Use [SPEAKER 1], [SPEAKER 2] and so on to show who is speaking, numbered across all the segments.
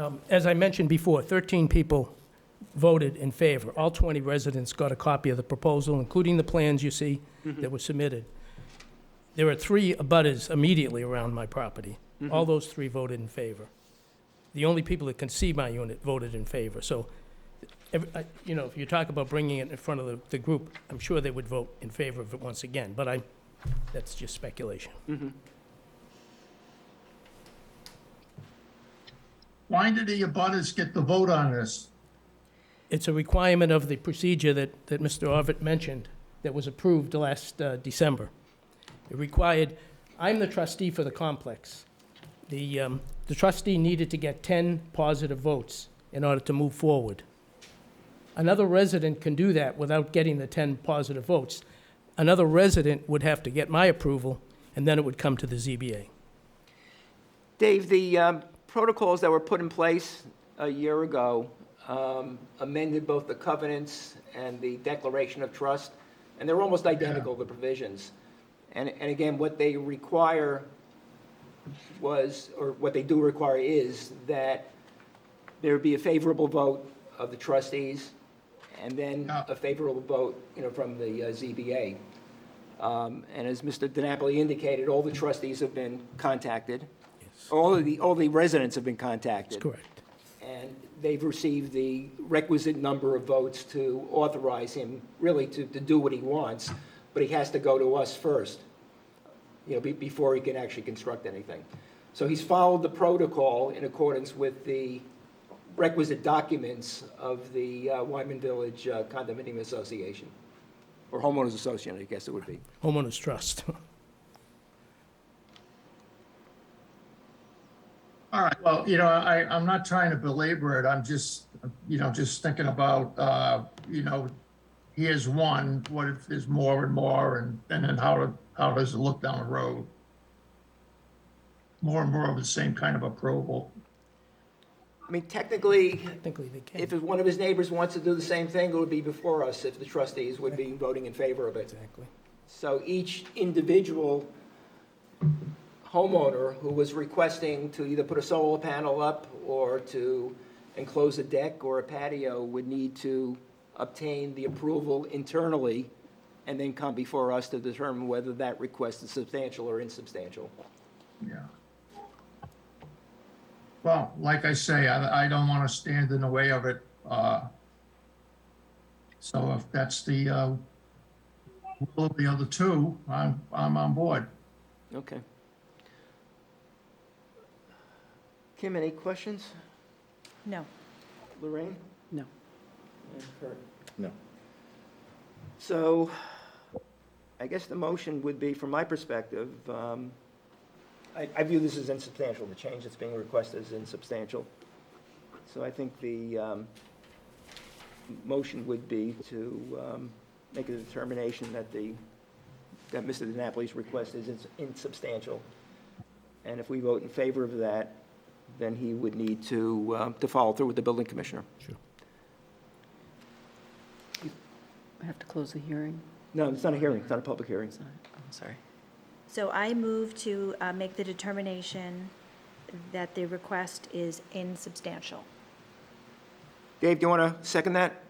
[SPEAKER 1] Um, As I mentioned before, 13 people voted in favor. All 20 residents got a copy of the proposal, including the plans you see that were submitted. There are three abutters immediately around my property. All those three voted in favor. The only people that can see my unit voted in favor. So, every- I- you know, if you talk about bringing it in front of the- the group, I'm sure they would vote in favor of it once again, but I, that's just speculation.
[SPEAKER 2] Why did the abutters get the vote on this?
[SPEAKER 1] It's a requirement of the procedure that, that Mr. Arvet mentioned that was approved last uh, December. It required, I'm the trustee for the complex. The, um, the trustee needed to get 10 positive votes in order to move forward. Another resident can do that without getting the 10 positive votes. Another resident would have to get my approval, and then it would come to the ZBA.
[SPEAKER 3] Dave, the um, protocols that were put in place a year ago um, amended both the covenants and the declaration of trust, and they're almost identical, the provisions. And, and again, what they require was, or what they do require is that there be a favorable vote of the trustees, and then
[SPEAKER 2] Yeah.
[SPEAKER 3] a favorable vote, you know, from the uh, ZBA. Um, And as Mr. DiNapoli indicated, all the trustees have been contacted. All of the, all the residents have been contacted.
[SPEAKER 1] That's correct.
[SPEAKER 3] And they've received the requisite number of votes to authorize him, really, to, to do what he wants, but he has to go to us first, you know, be- before he can actually construct anything. So he's followed the protocol in accordance with the requisite documents of the uh, Wyman Village uh, Condominium Association, or homeowners association, I guess it would be.
[SPEAKER 1] Homeowners Trust.
[SPEAKER 2] All right, well, you know, I, I'm not trying to belabor it, I'm just, you know, just thinking about, uh, you know, here's one, what if there's more and more, and, and then how, how does it look down the road? More and more of the same kind of approval.
[SPEAKER 3] I mean, technically,
[SPEAKER 1] Technically, they can.
[SPEAKER 3] if one of his neighbors wants to do the same thing, it would be before us if the trustees would be voting in favor of it.
[SPEAKER 1] Exactly.
[SPEAKER 3] So each individual homeowner who was requesting to either put a solar panel up or to enclose a deck or a patio would need to obtain the approval internally and then come before us to determine whether that request is substantial or insubstantial.
[SPEAKER 2] Yeah. Well, like I say, I, I don't want to stand in the way of it. uh, So if that's the, uh, will of the other two, I'm, I'm on board.
[SPEAKER 3] Okay. Kim, any questions?
[SPEAKER 4] No,
[SPEAKER 3] Lorraine?
[SPEAKER 4] no.
[SPEAKER 3] And Kurt?
[SPEAKER 5] No.
[SPEAKER 3] So I guess the motion would be, from my perspective, um, I I view this as insubstantial. The change that's being requested is insubstantial. So I think the um, motion would be to um, make a determination that the, that Mr. DiNapoli's request is ins- insubstantial. And if we vote in favor of that, then he would need to, uh, to follow through with the building commissioner.
[SPEAKER 4] I have to close the hearing.
[SPEAKER 3] No, it's not a hearing, it's not a public hearing.
[SPEAKER 4] It's not, I'm sorry.
[SPEAKER 6] So I move to uh, make the determination that the request is insubstantial.
[SPEAKER 3] Dave, do you want to second that?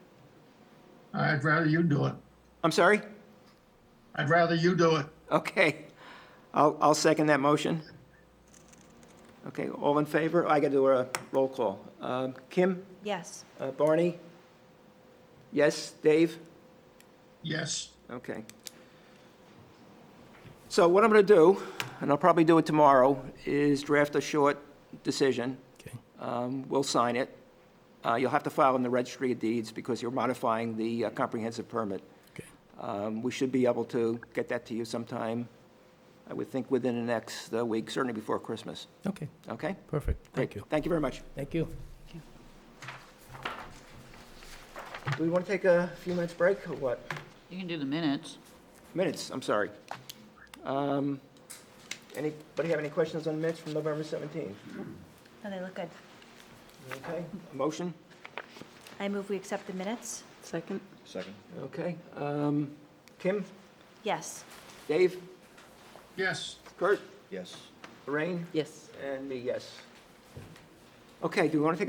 [SPEAKER 2] I'd rather you do it.
[SPEAKER 3] I'm sorry?
[SPEAKER 2] I'd rather you do it.
[SPEAKER 3] Okay. I'll, I'll second that motion. Okay, all in favor? I got to do a roll call. Um, Kim,
[SPEAKER 6] Yes.
[SPEAKER 3] Uh, Barney? Yes, Dave?
[SPEAKER 2] Yes,
[SPEAKER 3] Okay. So what I'm going to do, and I'll probably do it tomorrow, is draft a short decision.
[SPEAKER 1] Okay.
[SPEAKER 3] Um, We'll sign it. Uh, You'll have to file in the registry of deeds because you're modifying the uh, comprehensive permit.
[SPEAKER 1] Okay.
[SPEAKER 3] Um, We should be able to get that to you sometime, I would think, within the next uh, week, certainly before Christmas.
[SPEAKER 1] Okay,
[SPEAKER 3] Okay?
[SPEAKER 1] perfect. Thank
[SPEAKER 3] Great.
[SPEAKER 1] you.
[SPEAKER 3] Thank you very much.
[SPEAKER 1] Thank you.
[SPEAKER 3] Do we want to take a few minutes break or what?
[SPEAKER 7] You can do the minutes.
[SPEAKER 3] Minutes, I'm sorry. Um, Anybody have any questions on minutes from November 17th?
[SPEAKER 6] No, Oh, they look good.
[SPEAKER 3] Okay, motion?
[SPEAKER 6] I move we accept the minutes.
[SPEAKER 4] Second?
[SPEAKER 5] Second?
[SPEAKER 3] Okay. um, Kim,
[SPEAKER 6] Yes.
[SPEAKER 3] Dave,
[SPEAKER 2] yes.
[SPEAKER 3] Kurt,
[SPEAKER 5] Yes.
[SPEAKER 3] Lorraine,
[SPEAKER 4] Yes.
[SPEAKER 3] and me, yes. Okay, do we want to take a